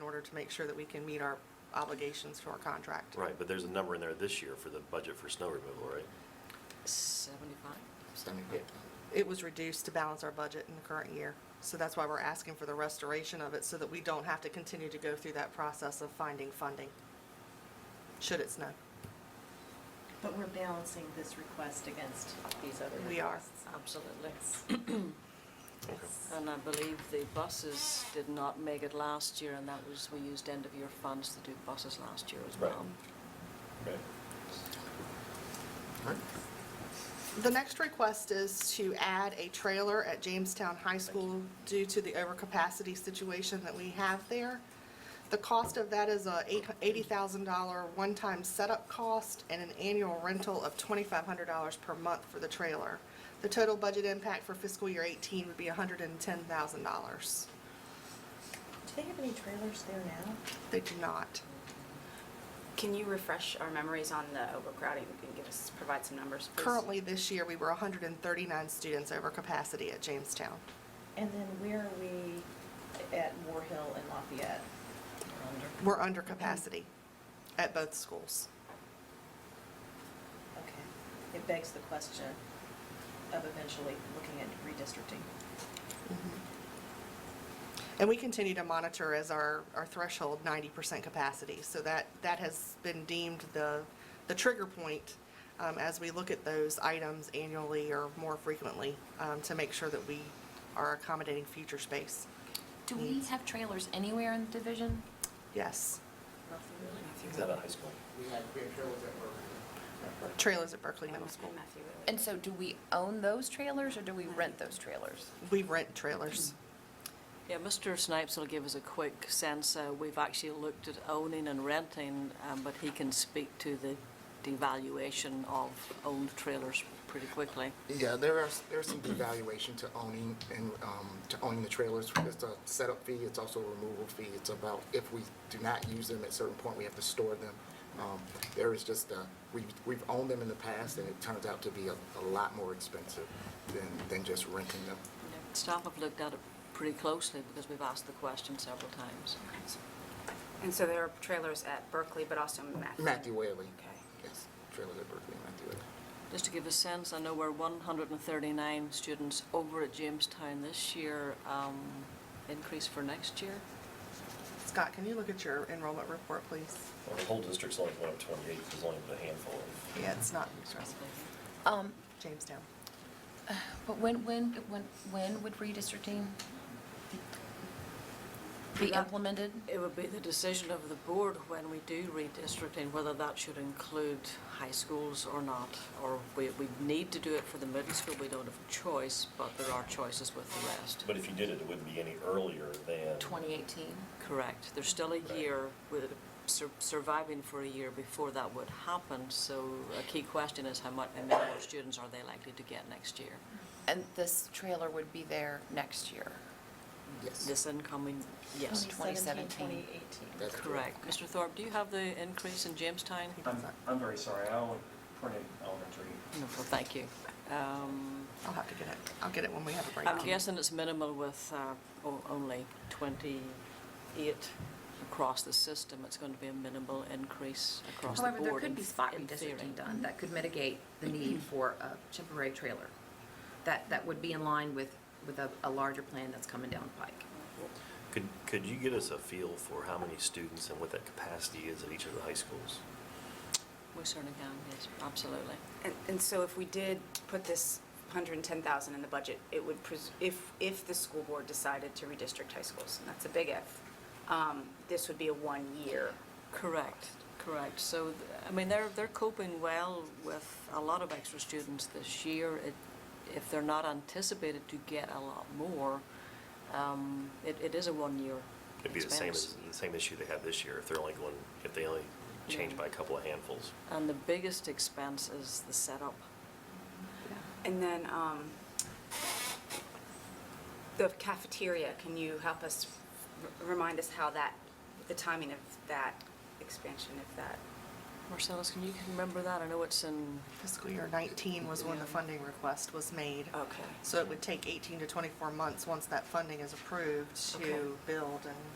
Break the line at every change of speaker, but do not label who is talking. order to make sure that we can meet our obligations to our contract.
Right, but there's a number in there this year for the budget for snow removal, right?
75?
It- It was reduced to balance our budget in the current year. So that's why we're asking for the restoration of it, so that we don't have to continue to go through that process of finding funding, should it snow.
But we're balancing this request against these other
We are.
requests.
Absolutely.
Okay.
And I believe the buses did not make it last year, and that was, we used end-of-year funds to do buses last year as
Right.
well.
The next request is to add a trailer at Jamestown High School due to the overcapacity situation that we have there. The cost of that is a eight- $80,000 one-time setup cost and an annual rental of $2,500 per month for the trailer. The total budget impact for fiscal year 18 would be $110,000.
Do they have any trailers there now?
They do not.
Can you refresh our memories on the overcrowding and give us, provide some numbers, please?
Currently, this year, we were 139 students over capacity at Jamestown.
And then where are we at War Hill and Lafayette?
We're under capacity at both schools.
Okay. It begs the question of eventually looking at redistricting.
Mm-hmm. And we continue to monitor as our, our threshold 90% capacity. So that, that has been deemed the, the trigger point um, as we look at those items annually or more frequently um, to make sure that we are accommodating future space.
Do we have trailers anywhere in the division?
Yes.
Is that a high school?
We had, we had trailers that were.
Trailers at Berkeley Middle
And
School.
Matthew Willey.
And so do we own those trailers or do we rent those trailers?
We rent trailers.
Yeah, Mr. Snipes will give us a quick sense. Uh, We've actually looked at owning and renting, um, but he can speak to the devaluation of owned trailers pretty quickly.
Yeah, there are, there's some devaluation to owning and, um, to owning the trailers. It's a setup fee, it's also a removal fee. It's about if we do not use them, at a certain point, we have to store them. Um, There is just, uh, we, we've owned them in the past and it turns out to be a, a lot more expensive than, than just renting them.
Staff have looked at it pretty closely because we've asked the question several times.
And so there are trailers at Berkeley, but also Matthew?
Matthew Whaley.
Okay.
Yes, trailers at Berkeley, Matthew Whaley.
Just to give a sense, I know we're 139 students over at Jamestown this year, um, increase for next year.
Scott, can you look at your enrollment report, please?
Well, The whole district's only going up 28, there's only a handful of.
Yeah, it's not stressful.
Um,
Jamestown.
but when, when, when, when would redistricting be implemented?
It would be the decision of the board when we do redistricting, whether that should include high schools or not, or we, we need to do it for the middle school, we don't have a choice, but there are choices with the rest.
But if you did it, it wouldn't be any earlier than.
2018?
Correct. There's still a
Right.
year, with sur- surviving for a year before that would happen, so a key question is how much, how many more students are they likely to get next year?
And this trailer would be there next year?
Yes.
This uh, incoming, yes.
2017.
2018.
That's
Correct. Mr. Thorpe, do you have the increase in Jamestown?
He
No,
does not.
I'm very sorry, I only printed elementary.
well, thank you. Um,
I'll have to get it. I'll get it when we have a break.
I'm guessing it's minimal with uh, o- only 28 across the system. It's going to be a minimal increase across the board.
However, there could
in-
be spot
in theory.
redistricting done that could mitigate the need for a temporary trailer. That, that would be in line with, with a, a larger plan that's coming down the pike.
Could, could you get us a feel for how many students and what that capacity is at each of the high schools?
We certainly can, yes, absolutely.
And, and so if we did put this 110,000 in the budget, it would, pres- if, if the school board decided to redistrict high schools, and that's a big if, um, this would be a one-year.
Correct, correct. So, th- I mean, they're, they're coping well with a lot of extra students this year. It- If they're not anticipated to get a lot more, um, it, it is a one-year
It'd be the same, as
expense.
the same issue they have this year, if they're only going, if they only change by a couple of handfuls.
And the biggest expense is the setup.
And then um, the cafeteria, can you help us, r- remind us how that, the timing of that expansion, if that?
Marcellus, can you can remember that? I know it's in,
Fiscal year 19 was when the funding request was made.
Okay.
So it would take 18 to 24 months, once that funding is approved,
Okay.
to build and